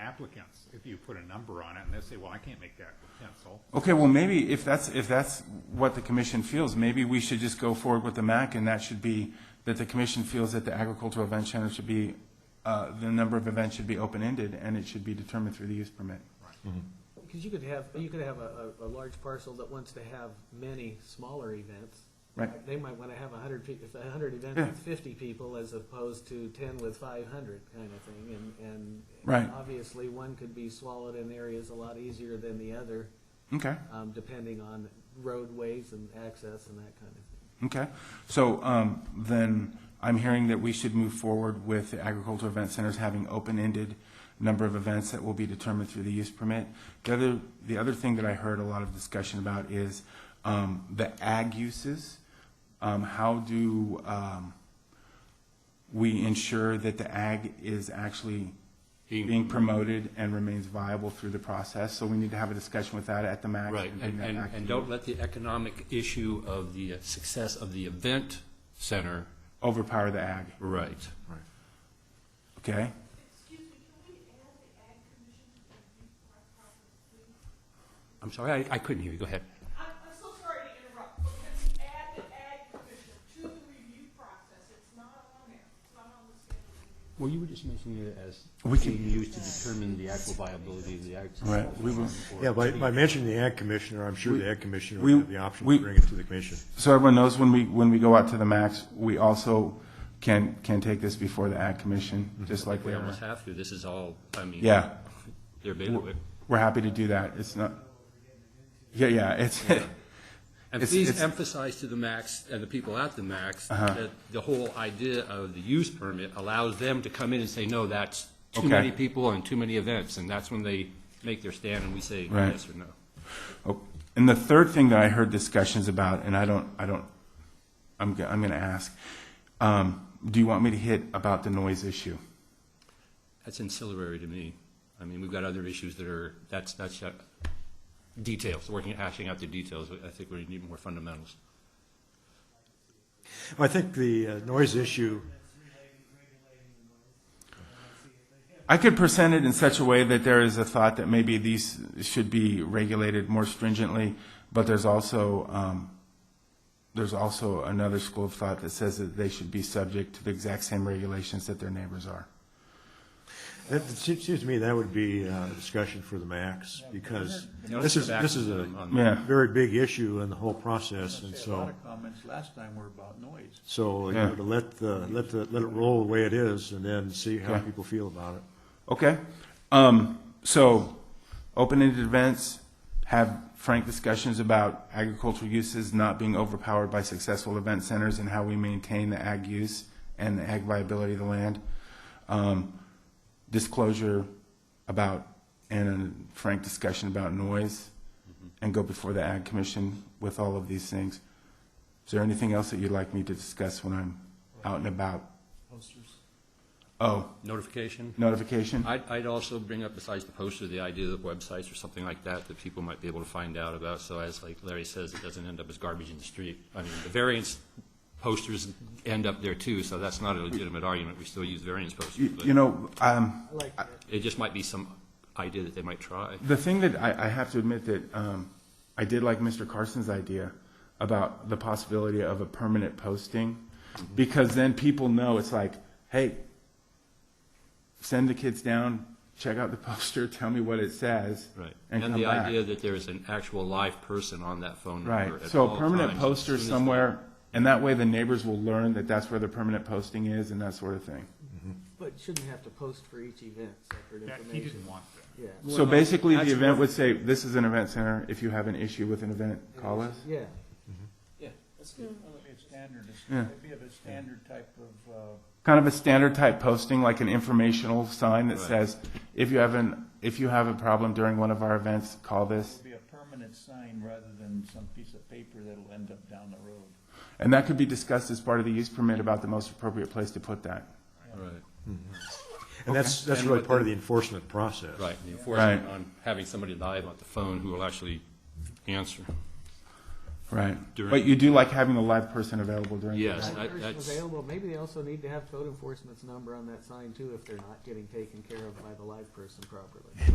applicants if you put a number on it and they say, well, I can't make that with pencil. Okay, well, maybe if that's, if that's what the commission feels, maybe we should just go forward with the MAC, and that should be, that the commission feels that the agricultural event center should be, uh, the number of events should be open-ended, and it should be determined through the use permit. Because you could have, you could have a, a, a large parcel that wants to have many smaller events. Right. They might wanna have a hundred pe- if a hundred events Yeah. with fifty people as opposed to ten with five hundred kind of thing, and, and. Right. Obviously, one could be swallowed in areas a lot easier than the other, Okay, um, depending on roadways and access and that kind of thing. okay. So, um, then, I'm hearing that we should move forward with the agricultural event centers having open-ended number of events that will be determined through the use permit. The other, the other thing that I heard a lot of discussion about is, um, the ag uses. Um, how do, um, we ensure that the ag is actually being promoted and remains viable through the process? So we need to have a discussion with that at the MAC. Right, bring and, that and, back to and you. don't let the economic issue of the uh, success of the event center. Overpower the ag, Right. okay? Excuse me, can we add the ag commission to the report properly, please? I'm sorry, I, I couldn't hear you, go ahead. I'm, I'm so sorry to interrupt, but can we add the ag commission to the review process? It's not on there, it's not on the schedule. Well, you were just mentioning it as We being used to determine the actual viability of the ag. Right, we will- Yeah, by, by mentioning the ag commissioner, I'm sure the ag commissioner we- would have the option we- to bring it to the commission. So everyone knows when we, when we go out to the max, we also can, can take this before the ag commission, just like We they almost are. have to, this is all, I mean. Yeah, They're bailiwick. we're happy to do that. It's not, yeah, yeah, it's, And It's- please it's- Uh-huh. emphasize to the max and the people at the max that the whole idea of the use permit allows them to come in and say, no, that's too Okay. many people and too many events, and that's when they make their stand and we say Right. yes or no. Oh, And the third thing that I heard discussions about, and I don't, I don't, I'm, go- I'm going to ask, um, do you want me to hit about the noise issue? That's ancillary to me. I mean, we've got other issues that are, that's, that's uh, details, working, hashing out the details. I think we need more fundamentals. I think the uh, noise issue, I could present it in such a way that there is a thought that maybe these should be regulated more stringently, but there's also, um, there's also another school of thought that says that they should be subject to the exact same regulations that their neighbors are. that it seems seems to me that would be uh, a discussion for the max, because Notice this is, the back this is a on- on- Yeah, very big issue in the whole process, and Say, A lot so, of comments last time were about noise. so, you Yeah. know, to let the, let the, let it roll the way it is, and then see how Okay. people feel about it. okay. Um, so, open-ended events, have frank discussions about agricultural uses not being overpowered by successful event centers and how we maintain the ag use and the ag viability of the land. Um, disclosure about, and a frank discussion about noise, and go before the Ag Commission with all of these things. Is there anything else that you'd like me to discuss when I'm out and about? Posters. Oh, Notification. notification? I'd, I'd also bring up, besides the poster, the idea of websites or something like that that people might be able to find out about. So as like Larry says, it doesn't end up as garbage in the street. I mean, the variance posters end up there too, so that's not a legitimate argument. We still use variance posters, You you but know, um, I like that. it just might be some idea that they might try. The thing that I, I have to admit that um, I did like Mr. Carson's idea about the possibility of a permanent posting, because then people know it's like, hey, send the kids down, check out the poster, tell me what it says, Right. and, And come the back. idea that there is an actual live person on that phone number right. at So all a permanent times, as poster soon as- somewhere, and that way the neighbors will learn that that's where the permanent posting is and that sort of thing. But shouldn't have to post for each event, separate That, he information, didn't want that. yeah. so basically, the event would say, "This is an event center. If you have an issue with an event, call us." Yeah. Yeah, that's good. It'd be a standard, it's- Yeah. it'd be of a standard type of, uh, kind of a standard type posting, like an informational sign that Right. says, if you have an, if you have a problem during one of our events, call this. it'd be a permanent sign rather than some piece of paper that'll end up down the road. And that could be discussed as part of the use permit about the most appropriate place to put that. Right. And that's, that's And really what part of the enforcement process. Right, the enforcement Right. on having somebody live on the phone who will actually answer. right? During- But you do like having a live person available during. the Yes, That I- person that's, Available, maybe they also need to have code enforcement's number on that sign too, if they're not getting taken care of by the live person properly.